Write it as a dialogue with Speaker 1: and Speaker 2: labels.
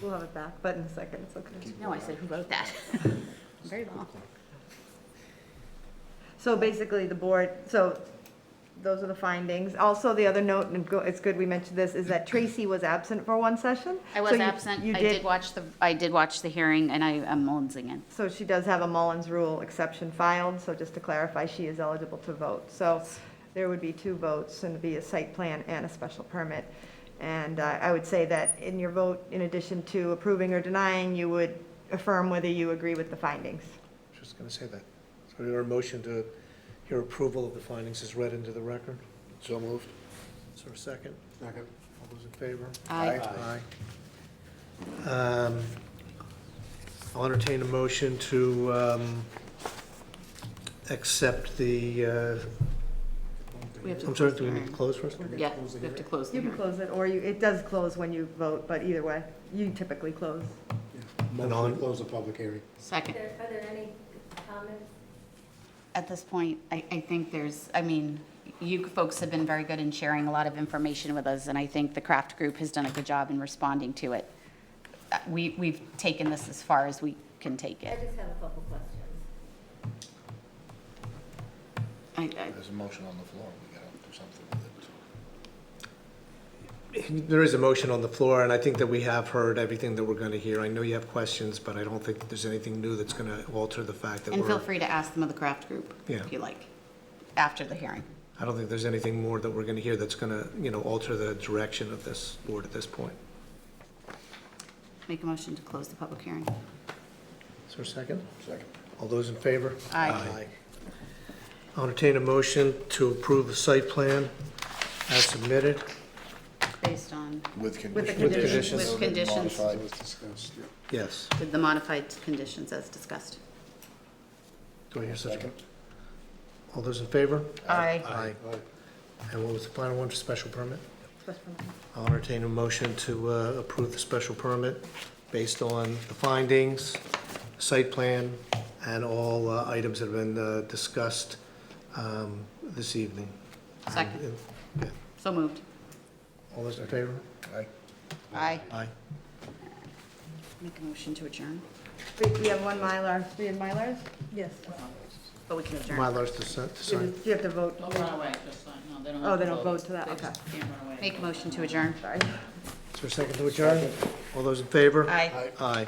Speaker 1: We'll have it back, but in a second, it's okay.
Speaker 2: No, I said, who wrote that? Very long.
Speaker 1: So basically, the board, so those are the findings. Also, the other note, and go- it's good we mentioned this, is that Tracy was absent for one session.
Speaker 2: I was
Speaker 1: So you-
Speaker 2: absent.
Speaker 1: you
Speaker 2: I did watch the, I did watch the hearing and I am Mullins in.
Speaker 1: So she does have a Mullins Rule exception filed, so just to clarify, she is eligible to vote. So there would be two votes, and it'd be a site plan and a special permit. And uh, I would say that in your vote, in addition to approving or denying, you would affirm whether you agree with the findings.
Speaker 3: Just going to say that. So your motion to, your approval of the findings is read into the record?
Speaker 4: So moved.
Speaker 3: Is there a second?
Speaker 4: Second.
Speaker 3: All those in favor?
Speaker 2: I,
Speaker 3: Aye. Um, I'll entertain a motion to um, accept the, uh,
Speaker 2: we have to
Speaker 3: I'm sorry,
Speaker 2: close
Speaker 3: do
Speaker 2: the
Speaker 3: we need to
Speaker 2: hearing.
Speaker 3: close first?
Speaker 2: Yeah, we have to close the
Speaker 1: You can
Speaker 2: hearing.
Speaker 1: close it, or you, it does close when you vote, but either way, you typically close.
Speaker 4: Motion to close the public hearing.
Speaker 2: Second.
Speaker 5: Are there, are there any comments?
Speaker 2: At this point, I, I think there's, I mean, you folks have been very good in sharing a lot of information with us, and I think the craft group has done a good job in responding to it. Uh, We, we've taken this as far as we can take
Speaker 5: I
Speaker 2: it.
Speaker 5: just have a couple questions.
Speaker 2: I, I,
Speaker 4: There's a motion on the floor, we gotta do something with it.
Speaker 3: There is a motion on the floor, and I think that we have heard everything that we're going to hear. I know you have questions, but I don't think that there's anything new that's going to alter the fact that
Speaker 2: and feel
Speaker 3: we're,
Speaker 2: free to ask them of the craft group,
Speaker 3: Yeah.
Speaker 2: if you like, after the hearing.
Speaker 3: I don't think there's anything more that we're going to hear that's going to, you know, alter the direction of this board at this point.
Speaker 2: Make a motion to close the public hearing.
Speaker 3: Is there a second?
Speaker 4: Second.
Speaker 3: All those in favor?
Speaker 2: Aye.
Speaker 3: I'll entertain a motion to approve the site plan as submitted.
Speaker 2: Based on,
Speaker 4: With
Speaker 1: conditions.
Speaker 3: With conditions.
Speaker 2: With conditions.
Speaker 4: Modified. Was discussed, yeah.
Speaker 3: Yes.
Speaker 2: with the modified conditions as discussed.
Speaker 3: Do I hear such a,
Speaker 4: Second.
Speaker 3: all those in favor?
Speaker 2: Aye.
Speaker 3: Aye. And what was the final one for special permit?
Speaker 1: Special permit.
Speaker 3: I'll entertain a motion to uh, approve the special permit based on the findings, site plan, and all uh, items that have been uh, discussed um, this evening.
Speaker 2: Second. So moved.
Speaker 3: All those in favor?
Speaker 4: Aye.
Speaker 2: Aye.
Speaker 3: Aye.
Speaker 2: Make a motion to adjourn,
Speaker 1: Wait, We have one Mylar, we have Mylars? Yes.
Speaker 2: but we can adjourn.
Speaker 3: Mylar's to sign- to
Speaker 1: You
Speaker 3: sign.
Speaker 1: have- you have to vote.
Speaker 6: Don't run away, just like, no, they don't.
Speaker 1: Oh,
Speaker 6: have
Speaker 1: they
Speaker 6: to
Speaker 1: don't vote to that,
Speaker 6: They
Speaker 1: okay.
Speaker 6: just Can't run away.
Speaker 2: Make a motion to adjourn.
Speaker 1: Sorry.
Speaker 3: Is there a second to adjourn? All those in favor?
Speaker 2: Aye.
Speaker 3: Aye.